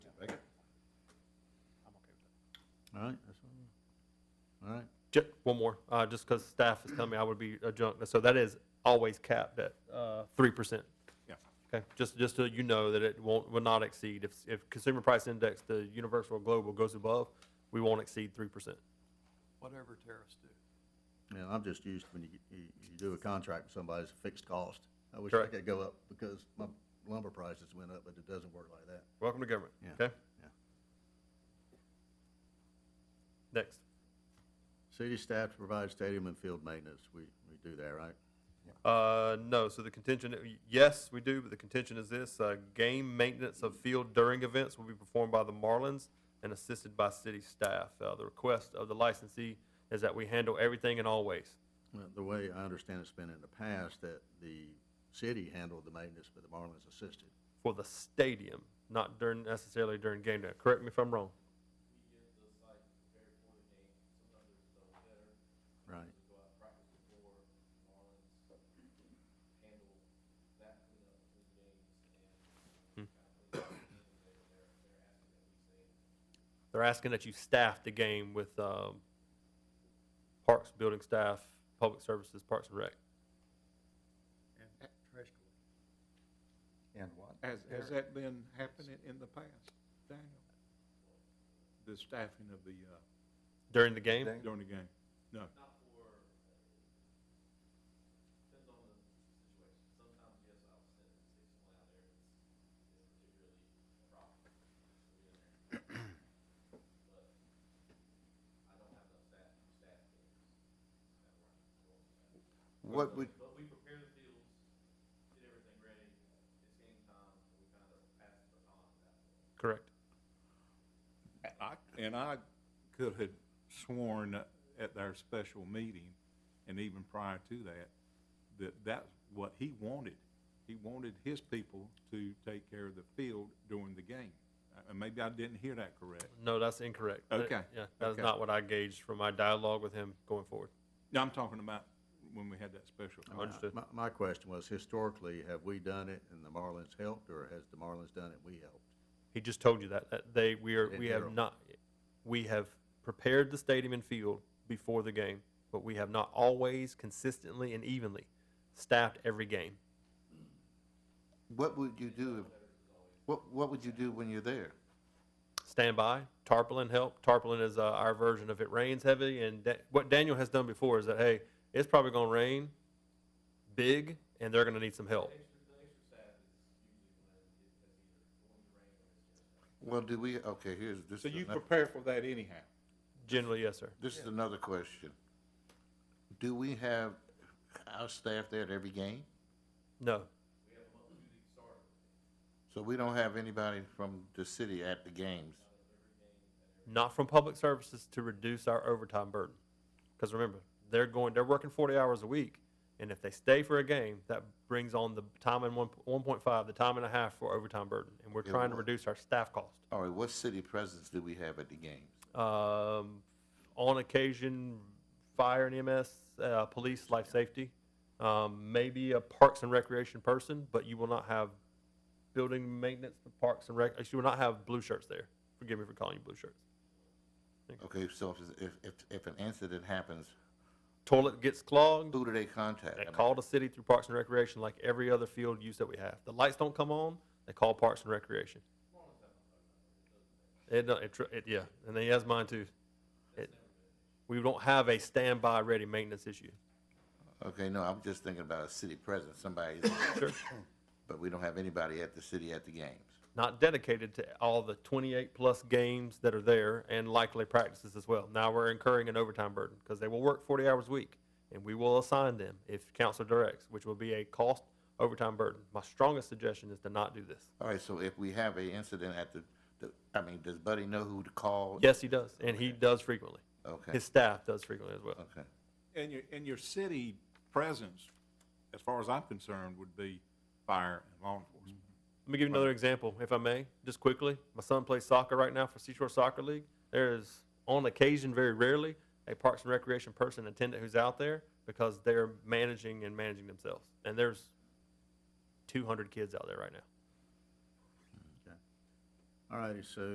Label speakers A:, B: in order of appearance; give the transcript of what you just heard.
A: All right, that's all. All right,
B: Ju- one more, uh, just because staff is telling me I would be adjunct, so that is always capped at, uh, three percent.
C: Yeah.
B: Okay, just, just so you know that it won't, will not exceed, if, if consumer price index, the universal or global goes above, we won't exceed three percent.
D: whatever tariffs do.
A: yeah, I'm just used when you, you, you do a contract with somebody, it's a fixed cost. I wish I
B: Correct.
A: could go up because my lumber prices went up, but it doesn't work like that.
B: Welcome to government,
A: Yeah.
B: okay?
A: Yeah.
B: Next,
A: City staff to provide stadium and field maintenance, we, we do that, right?
B: uh, no, so the contention, yes, we do, but the contention is this, uh, game maintenance of field during events will be performed by the Marlins and assisted by city staff. Uh, the request of the licensee is that we handle everything and always.
A: Well, The way I understand it's been in the past, that the city handled the maintenance, but the Marlins assisted.
B: for the stadium, not during necessarily during game day. Correct me if I'm wrong.
A: Right.
B: They're asking that you staff the game with um, parks, building staff, public services, parks and rec.
D: And trash collection.
A: And what?
C: Has, has that been happening in the past, Daniel? The staffing of the, uh,
B: During the game,
C: during the game? No.
E: What would,
B: correct.
C: I, and I could have sworn at their special meeting, and even prior to that, that that's what he wanted. He wanted his people to take care of the field during the game. Uh, maybe I didn't hear that correct.
B: No, that's incorrect. That-
C: Okay,
B: yeah, that's
C: okay.
B: not what I gauged from my dialogue with him going forward.
C: No, I'm talking about when we had that special.
B: Oh, Understood.
A: My, my question was historically, have we done it and the Marlins helped, or has the Marlins done it, we helped?
B: He just told you that, that they we are
A: In
B: we have
A: general.
B: not we have prepared the stadium and field before the game, but we have not always consistently and evenly staffed every game.
E: what would you do, if- what, what would you do when you're there?
B: standby, tarpaulin help. Tarpaulin is uh, our version of it rains heavy. And da- what Daniel has done before is that, hey, it's probably going to rain big and they're going to need some help.
E: Well, do we, okay, here's, this
C: So
E: is
C: you
E: another,
C: prepare for that anyhow?
B: Generally, yes, sir.
E: this is another question. Do we have our staff there at every game?
B: No,
E: So we don't have anybody from the city at the games?
B: not from public services to reduce our overtime burden. Because remember, they're going, they're working 40 hours a week. And if they stay for a game, that brings on the time and one, 1.5, the time and a half for overtime burden. And we're
E: Yeah,
B: trying to
E: what-
B: reduce our staff cost.
E: All right, what city presence do we have at the games?
B: um, on occasion, fire and EMS, uh, police, life safety, um, maybe a parks and recreation person, but you will not have building maintenance, the parks and rec, you will not have blue shirts there. Forgive me for calling you blue shirts.
E: Okay, so if, if- if, if an incident happens,
B: Toilet gets clogged,
E: who do they contact?
B: they
E: I mean,
B: call the city through parks and recreation like every other field use that we have. The lights don't come on, they call parks and recreation. It, don't- it, tr- it, yeah, and he has mine too. It, we don't have a standby ready maintenance issue.
E: Okay, no, I'm just thinking about a city presence, somebody,
B: Sure.
E: but we don't have anybody at the city at the games.
B: not dedicated to all the 28 plus games that are there and likely practices as well. Now we're incurring an overtime burden because they will work 40 hours a week and we will assign them if council directs, which will be a cost overtime burden. My strongest suggestion is to not do this.
E: All right, so if we have a incident at the, the, I mean, does Buddy know who to call?
B: Yes, he does, and he does frequently.
E: Okay,
B: His staff does frequently as well.
E: okay.
C: And your, and your city presence, as far as I'm concerned, would be fire and law enforcement.
B: Let me give you another example, if I may, just quickly. My son plays soccer right now for Seashore Soccer League. There is, on occasion, very rarely, a Parks and Recreation person attendant who's out there because they're managing and managing themselves. And there's 200 kids out there right now.
A: All righty, so